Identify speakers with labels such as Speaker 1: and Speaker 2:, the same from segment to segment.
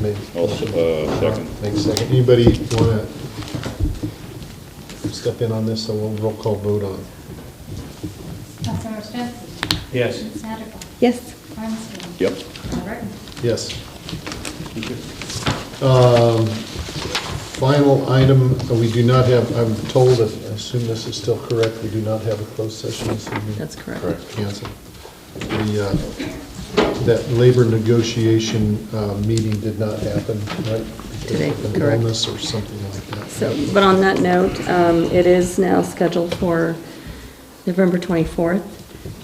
Speaker 1: Maybe.
Speaker 2: I'll s- uh, second.
Speaker 1: Make a second. Anybody want to step in on this, so we'll roll call vote on it?
Speaker 3: Councilmember Smith?
Speaker 4: Yes.
Speaker 3: Ms. Hatterback?
Speaker 5: Yes.
Speaker 3: Armstrong?
Speaker 2: Yep.
Speaker 3: Mayor Burton?
Speaker 1: Yes. Um, Final item, uh, we do not have, I'm told, I assume this is still correct, we do not have a closed session this evening.
Speaker 5: That's correct.
Speaker 1: Correct, cancel. The, uh, that labor negotiation uh, meeting did not happen, right?
Speaker 5: Today,
Speaker 1: Because of an
Speaker 5: correct.
Speaker 1: Illness or something like that.
Speaker 5: So, but on that note, um, it is now scheduled for November 24th,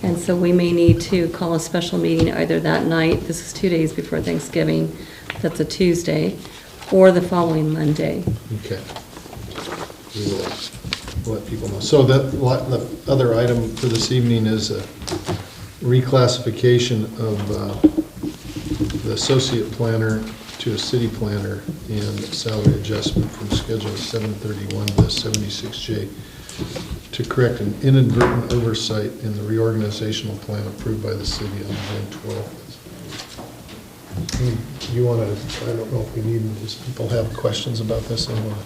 Speaker 5: and so we may need to call a special meeting either that night, this is two days before Thanksgiving, that's a Tuesday, or the following Monday.
Speaker 1: Okay. We will let people know. So that, what- the other item for this evening is a reclassification of uh, the associate planner to a city planner and salary adjustment from Schedule 731 to 76J to correct an inadvertent oversight in the reorganizational plan approved by the city on June 12th. Hmm. You- You want to, I don't know if we need, does people have questions about this? They wanna-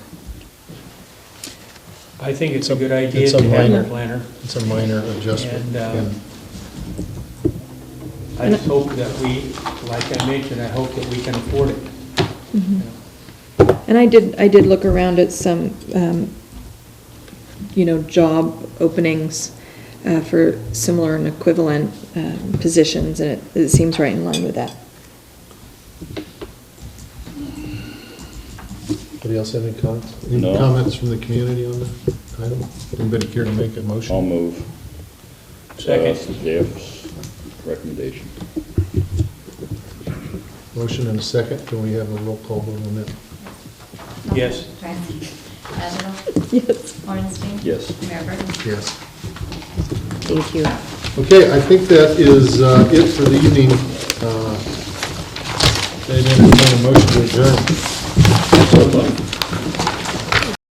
Speaker 4: I think it's a good idea
Speaker 1: It's a
Speaker 4: to have
Speaker 1: minor.
Speaker 4: a planner.
Speaker 1: It's a minor adjustment.
Speaker 4: And, uh,
Speaker 1: And
Speaker 4: I just hope that we, like I mentioned, I hope that we can afford it.
Speaker 6: Mm-hmm. And I did, I did look around at some, um, you know, job openings uh, for similar and equivalent um, positions, and it- it seems right in line with that.
Speaker 1: Anybody else have any comments? Any
Speaker 2: No.
Speaker 1: comments from the community on that item? Anybody care to make a
Speaker 2: I'll
Speaker 1: motion?
Speaker 2: move. uh,
Speaker 4: Second.
Speaker 2: Jeff's recommendation.
Speaker 1: Motion and a second, can we have a roll call vote on that?
Speaker 4: Yes.
Speaker 3: Ramsey? Hatterback?
Speaker 5: Yes.
Speaker 3: Orenstein?
Speaker 2: Yes.
Speaker 3: Mayor Burton?
Speaker 1: Yes.
Speaker 5: Thank you.
Speaker 1: Okay, I think that is uh, it for the evening. Uh, I'd entertain a motion to adjourn.